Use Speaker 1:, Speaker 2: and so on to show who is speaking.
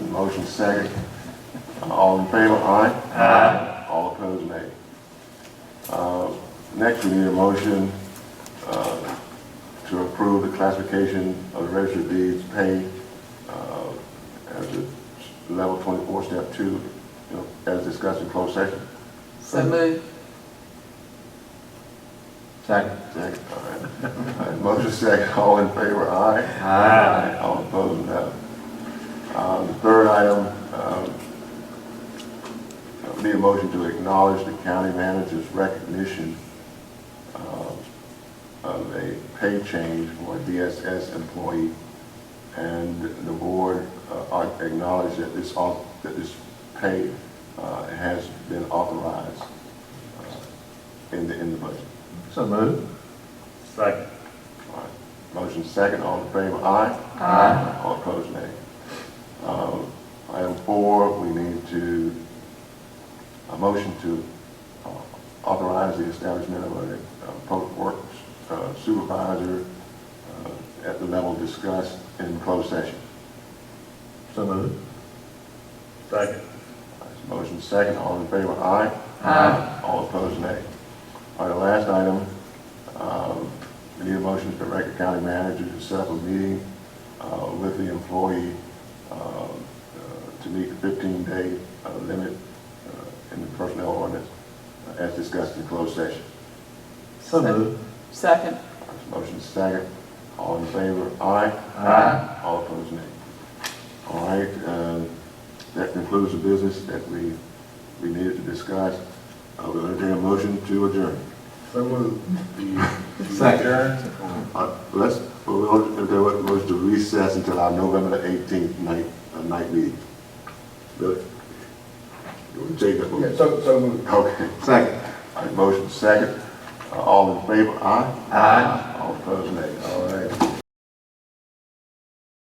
Speaker 1: Motion second. All in favor, aye? Aye. All opposed, nay. Uh, Next, we need a motion uh, to approve the classification of the registered deeds paid uh, as a level 24, step 2, you know, as discussed in closed session.
Speaker 2: So moved.
Speaker 3: Second.
Speaker 1: Second, all right. All right. Motion second, all in favor, aye?
Speaker 3: Aye.
Speaker 1: All opposed, no. Uh, The third item, um, uh, need a motion to acknowledge the county manager's recognition uh, of a pay change for a DSS employee, and the board uh, acknowledged that this, au- that this pay uh, has been authorized uh, in the, in the budget.
Speaker 3: So moved.
Speaker 4: Second.
Speaker 1: All right. Motion second, all in favor, aye?
Speaker 2: Ah,
Speaker 3: Aye.
Speaker 1: All opposed, nay. Um, Item four, we need to, a motion to uh, authorize the establishment of a uh, public works uh, supervisor uh, at the level discussed in closed session.
Speaker 3: So moved.
Speaker 4: Second.
Speaker 1: All right, Motion second, all in favor, aye?
Speaker 3: Aye.
Speaker 1: All opposed, nay. All right, the last item, um, we need a motion to direct the county manager to set up a meeting uh, with the employee um, uh, to meet the 15-day uh, limit uh, in the personnel ordinance uh, as discussed in closed session.
Speaker 3: So moved.
Speaker 2: Second.
Speaker 1: Motion second, all in favor, aye?
Speaker 3: Aye.
Speaker 1: All opposed, nay. All right, uh, that concludes the business that we, we needed to discuss. I will entertain a motion to adjourn.
Speaker 4: So moved. Do you- do you
Speaker 3: Second.
Speaker 4: adjourn?
Speaker 1: Uh, Let's, we'll, there was motion to recess until our November the eighteenth night, uh, night meeting. Billy? You want to take that
Speaker 4: Yeah,
Speaker 1: motion?
Speaker 4: so, so moved.
Speaker 1: Okay,
Speaker 3: Second.
Speaker 1: all right, motion second. Uh, All in favor, aye?
Speaker 3: Aye.
Speaker 1: All opposed, nay. All right.